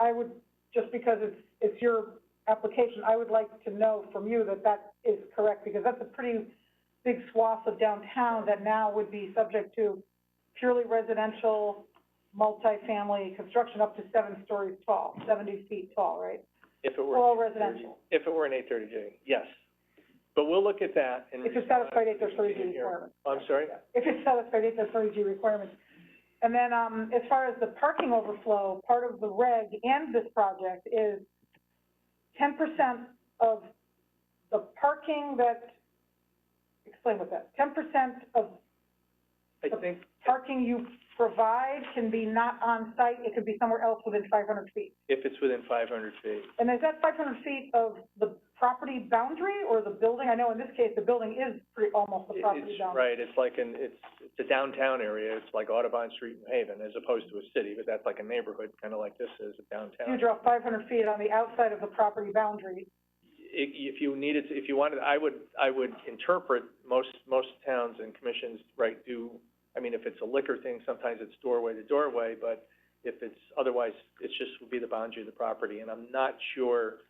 I would, just because it's, it's your application, I would like to know from you that that is correct, because that's a pretty big swath of downtown that now would be subject to purely residential, multifamily construction up to seven stories tall, seventy feet tall, right? If it were. All 830 residential, If it were an eight thirty J, yes. But we'll look at that and. if it's respond satisfied eight to the thirty G here. Oh, requirements. I'm sorry? If it's satisfied eight thirty G requirements. And then, um, as far as the parking overflow, part of the reg and this project is ten percent of the parking that, explain what that, ten percent of I think, parking you provide can be not on site, it could be somewhere else within five hundred feet. if it's within five hundred feet, And is that five hundred feet of the property boundary or the building? I know in this case, the building is pretty, almost the it- property it's, boundary. right, it's like an, it's, it's a downtown area, it's like Audubon Street in Haven, as opposed to a city, but that's like a neighborhood, kinda like this is, a You downtown. draw five hundred feet on the outside of the property boundary, If, if you needed, to- if you wanted, I would, I would interpret, most, most towns and commissions, right, do, I mean, if it's a liquor thing, sometimes it's doorway to doorway, but if it's, otherwise, it's just would be the boundary of the property, and I'm not sure,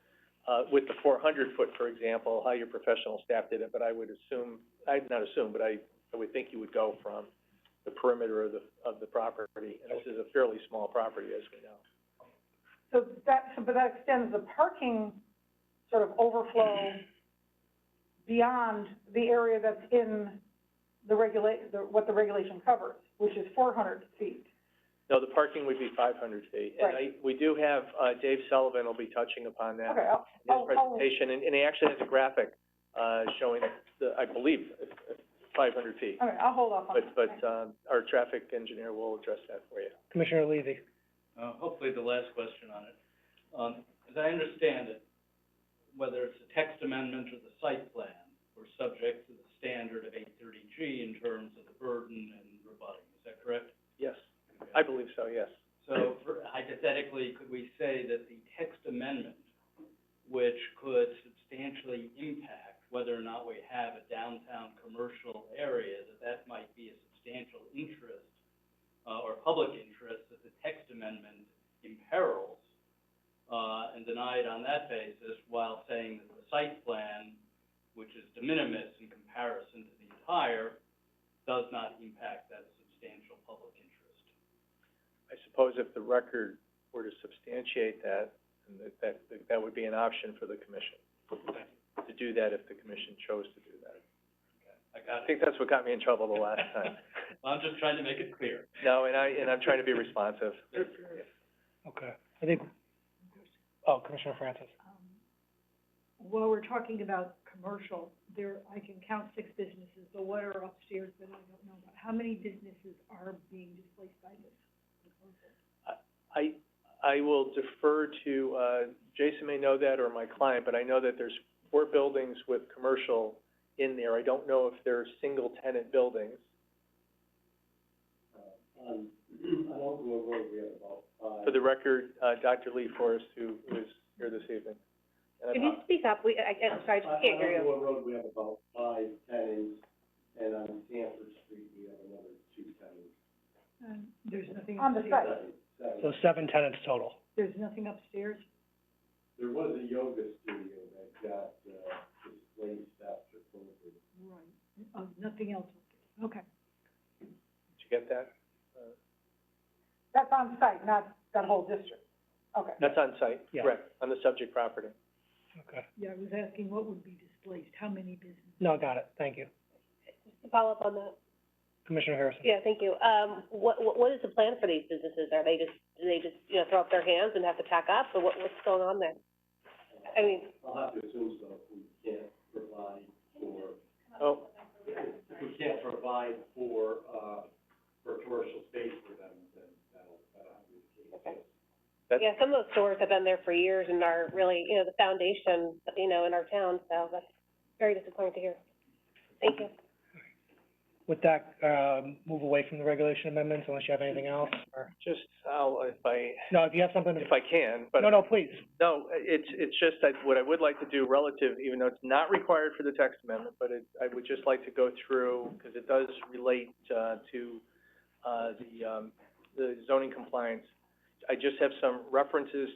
uh, with the four hundred foot, for example, how your professional staff did it, but I would assume, I'd not assume, but I, I would think you would go from the perimeter of the, of the property, and this is a fairly small property, as we know. So that, so, but that extends the parking sort of overflow beyond the area that's in the regulate, the, what the regulation covers, which is four hundred feet. No, the parking would be five hundred feet. And I, Right. we do have, uh, Dave Sullivan will be touching upon that Okay, Oh, I'll, in his I'll, I'll, presentation, and, and he actually has a graphic, uh, showing the, I believe, five hundred feet. okay, I'll hold off on that. But, but, Thanks. um, our traffic engineer will address that for you. Commissioner Levy. Uh, hopefully the last question on it. Um, as I understand it, whether it's a text amendment or the site plan, we're subject to the standard of eight thirty G in terms of the burden and rebutting, is that correct? Yes, I believe so, yes. So for- hypothetically, could we say that the text amendment, which could substantially impact whether or not we have a downtown commercial area, that that might be a substantial interest, uh, or public interest that the text amendment imperils, uh, and deny it on that basis while saying that the site plan, which is de minimis in comparison to the entire, does not impact that substantial public interest? I suppose if the record were to substantiate that, and that, that, that would be an option for the commission, to do that if the commission chose to do that. I I got it. think that's what got me in trouble the last time. I'm just trying to make it clear. No, and I, and I'm trying to be responsive. Okay. I think, oh, Commissioner Francis. Um, while we're talking about commercial, there, I can count six businesses, but what are upstairs that I don't know about? How many businesses are being displaced by this? I, I will defer to, uh, Jason may know that or my client, but I know that there's four buildings with commercial in there. I don't know if they're single tenant buildings. Uh, um, On, on Oak Grove Road, we have about five. For the record, uh, Dr. Lee Forrest, who was here this evening. And Can I'm- you speak up? We, I, I'm sorry, I just can't hear you. Um, there's nothing On the upstairs. site, So seven tenants total. There's nothing upstairs? There was a yoga studio that got, uh, displaced after COVID. Right, oh, nothing else, upstairs. okay. Did you get that? that's on site, not that whole district. Okay. That's on site, Yeah. correct, on the subject property. Okay. Yeah, I was asking what would be displaced, how many businesses? No, got it. Thank you. Follow up on that. Commissioner Harrison. Yeah, thank you. Um, what, what, what is the plan for these businesses? Are they just, do they just, you know, throw up their hands and have to pack up, or what, what's going on there? I mean, Oh, That's- yeah, some of those stores have been there for years and are really, you know, the foundation, you know, in our town, so that's very disappointing to hear. Thank you. With that, um, move away from the regulation amendments unless you have anything else or, just, I'll, if I, no, if you have something to, if I can, but. no, no, please. No, it's, it's just that what I would like to do relative, even though it's not required for the text amendment, but it, I would just like to go through, because it does relate, uh, to, uh, the, um, the zoning compliance. I just have some references